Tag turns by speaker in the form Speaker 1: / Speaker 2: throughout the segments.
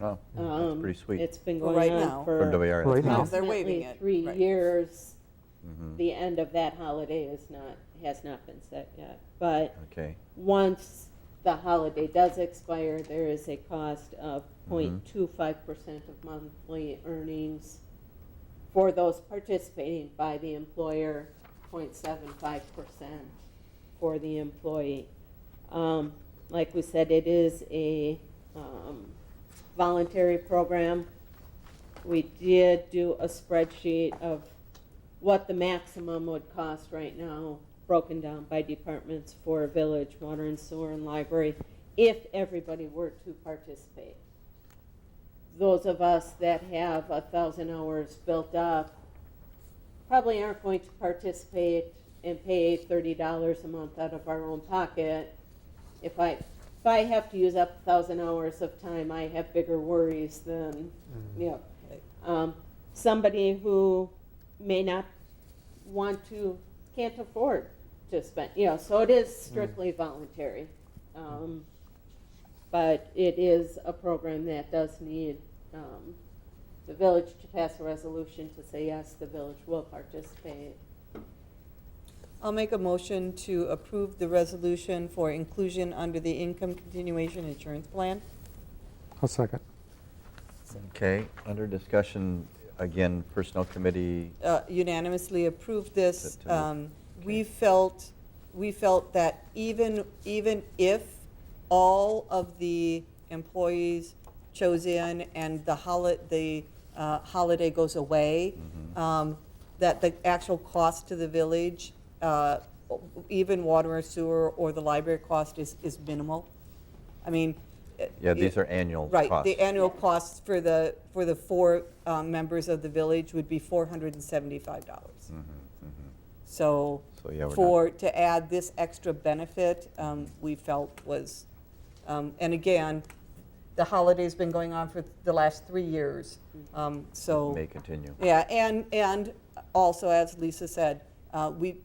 Speaker 1: Oh, that's
Speaker 2: Um,
Speaker 1: pretty sweet.
Speaker 2: It's been
Speaker 3: Well,
Speaker 2: going
Speaker 3: right
Speaker 2: on
Speaker 3: now.
Speaker 1: From
Speaker 2: for
Speaker 1: WIR.
Speaker 4: Right now.
Speaker 3: Because they're waiving
Speaker 2: approximately
Speaker 3: it,
Speaker 2: three
Speaker 3: right.
Speaker 2: years.
Speaker 1: Mhm.
Speaker 2: The end of that holiday is not, has not been set yet. But
Speaker 1: Okay,
Speaker 2: once the holiday does expire, there is a cost of 0.25% of monthly earnings for those participating by the employer, 0.75% for the employee. Um, Like we said, it is a um, voluntary program. We did do a spreadsheet of what the maximum would cost right now, broken down by departments for village, water and sewer and library, if everybody were to participate. Those of us that have a thousand hours built up probably aren't going to participate and pay thirty dollars a month out of our own pocket. If I, if I have to use up a thousand hours of time, I have bigger worries than, you know, um, somebody who may not want to, can't afford to spend, you know, so it is strictly voluntary. Um, But it is a program that does need um, the village to pass a resolution to say, yes, the village will participate.
Speaker 3: I'll make a motion to approve the resolution for inclusion under the Income Continuation Insurance Plan.
Speaker 4: I'll second.
Speaker 1: okay, under discussion, again, Personnel Committee,
Speaker 3: uh, unanimously approved this.
Speaker 1: That, uh,
Speaker 3: Um, We
Speaker 1: okay.
Speaker 3: felt, we felt that even, even if all of the employees chose in and the holi, the uh, holiday goes away,
Speaker 1: Mm-hmm.
Speaker 3: um, that the actual cost to the village, uh, even water or sewer or the library cost is, is minimal. I mean. it-
Speaker 1: yeah, these
Speaker 3: it-
Speaker 1: are annual costs.
Speaker 3: Right, the annual costs for the, for the four um, members of the village would be $475. So,
Speaker 1: Mm-hmm, So, yeah, we're not-
Speaker 3: for, to add this extra benefit, um, we felt was, um, and again, the holiday's been going on for the last three years, um, so.
Speaker 1: May continue.
Speaker 3: Yeah, and, and also, as Lisa said, uh, we,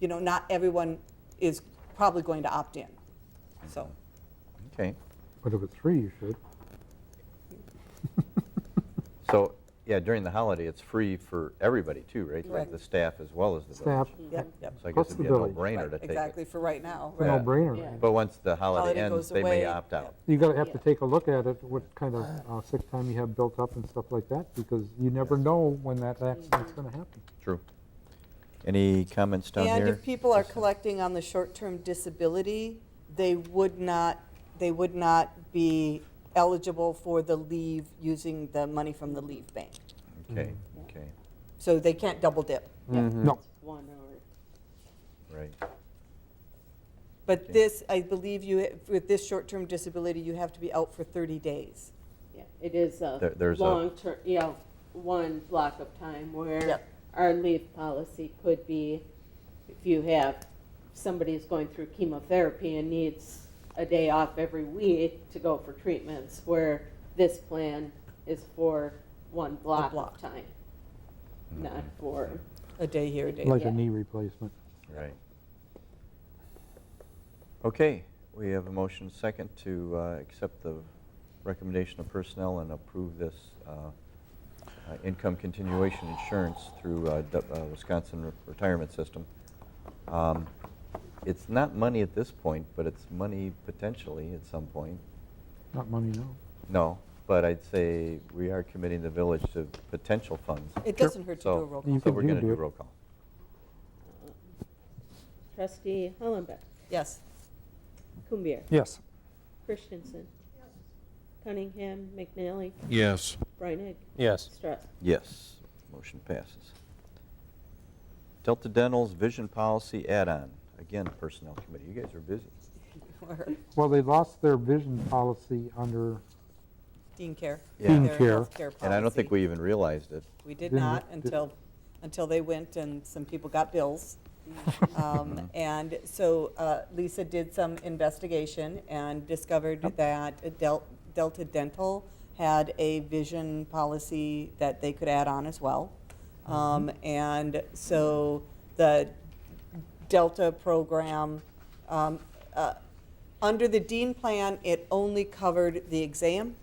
Speaker 3: you know, not everyone is probably going to opt in, so.
Speaker 1: Okay,
Speaker 4: But if it's free, you should.
Speaker 1: so, yeah, during the holiday, it's free for everybody too, right? Like
Speaker 3: Correct.
Speaker 1: The staff as well as the
Speaker 4: Staff,
Speaker 1: village.
Speaker 3: Yep, yep.
Speaker 1: So I
Speaker 4: Plus
Speaker 1: guess
Speaker 4: the
Speaker 1: it'd be a
Speaker 4: village.
Speaker 1: no-brainer
Speaker 3: Right,
Speaker 1: Mm-hmm. to take
Speaker 3: Exactly,
Speaker 1: it.
Speaker 3: for right now,
Speaker 4: it's a
Speaker 3: right.
Speaker 1: Yeah.
Speaker 4: no-brainer.
Speaker 2: Yeah.
Speaker 4: right?
Speaker 1: But once the holiday
Speaker 3: Holiday
Speaker 1: ends,
Speaker 3: goes
Speaker 1: they may
Speaker 3: away,
Speaker 1: opt
Speaker 3: yeah.
Speaker 1: out.
Speaker 4: You gotta have to
Speaker 2: Yeah.
Speaker 4: take a look at it, what kind of uh, sick time you have built up and stuff like that, because you never know when that accident's gonna happen.
Speaker 1: True. Any comments down here?
Speaker 3: And if people are collecting on the short-term disability, they would not, they would not be eligible for the leave using the money from the leave bank.
Speaker 1: Okay,
Speaker 3: Mm-hmm.
Speaker 1: okay,
Speaker 3: So they can't double dip.
Speaker 4: No,
Speaker 2: One hour.
Speaker 1: right.
Speaker 3: But this, I believe you, with this short-term disability, you have to be out for 30 days.
Speaker 2: Yeah, it is
Speaker 1: There-
Speaker 2: a
Speaker 1: there's a-
Speaker 2: long-term, you know, one block of time where
Speaker 3: Yep.
Speaker 2: our leave policy could be, if you have, somebody who's going through chemotherapy and needs a day off every week to go for treatments, where this plan is for one block
Speaker 3: block.
Speaker 2: of time, not
Speaker 1: Mm-hmm.
Speaker 2: for,
Speaker 3: A day here, a day there.
Speaker 4: like a knee replacement.
Speaker 1: Right. Okay, we have a motion second to uh, accept the recommendation of personnel and approve this uh, uh, income continuation insurance through uh, Du- uh, Wisconsin Re- Retirement System. Um, It's not money at this point, but it's money potentially at some point.
Speaker 4: Not money, no.
Speaker 1: No, but I'd say we are committing the village to potential funds.
Speaker 3: It doesn't hurt to do
Speaker 1: So-
Speaker 3: a roll
Speaker 4: You
Speaker 3: call.
Speaker 1: So
Speaker 4: can-
Speaker 1: we're
Speaker 4: you
Speaker 1: going to
Speaker 4: do
Speaker 1: do
Speaker 4: it.
Speaker 1: roll call.
Speaker 2: um, trustee Hollenbeck,
Speaker 3: Yes.
Speaker 2: Kumbir,
Speaker 4: Yes.
Speaker 2: Christensen, Cunningham, McNally,
Speaker 5: Yes.
Speaker 2: Breinig,
Speaker 5: Yes.
Speaker 2: Strauss.
Speaker 1: Yes, motion passes. Delta Dental's vision policy add-on, again, Personnel Committee, you guys are busy.
Speaker 4: Well, they lost their vision policy under,
Speaker 3: Dean Care.
Speaker 1: Yeah. Dean
Speaker 3: Their
Speaker 4: Care.
Speaker 3: healthcare
Speaker 1: And I don't
Speaker 3: policy.
Speaker 1: think we even realized it.
Speaker 3: We did
Speaker 4: Didn't-
Speaker 3: not
Speaker 4: did-
Speaker 3: until, until they went and some people got bills. Um, And so uh, Lisa did some investigation and discovered that Del- Delta Dental had a vision policy that they could add on as well. Um, And so the Delta program, um, uh, under the Dean plan, it only covered the exam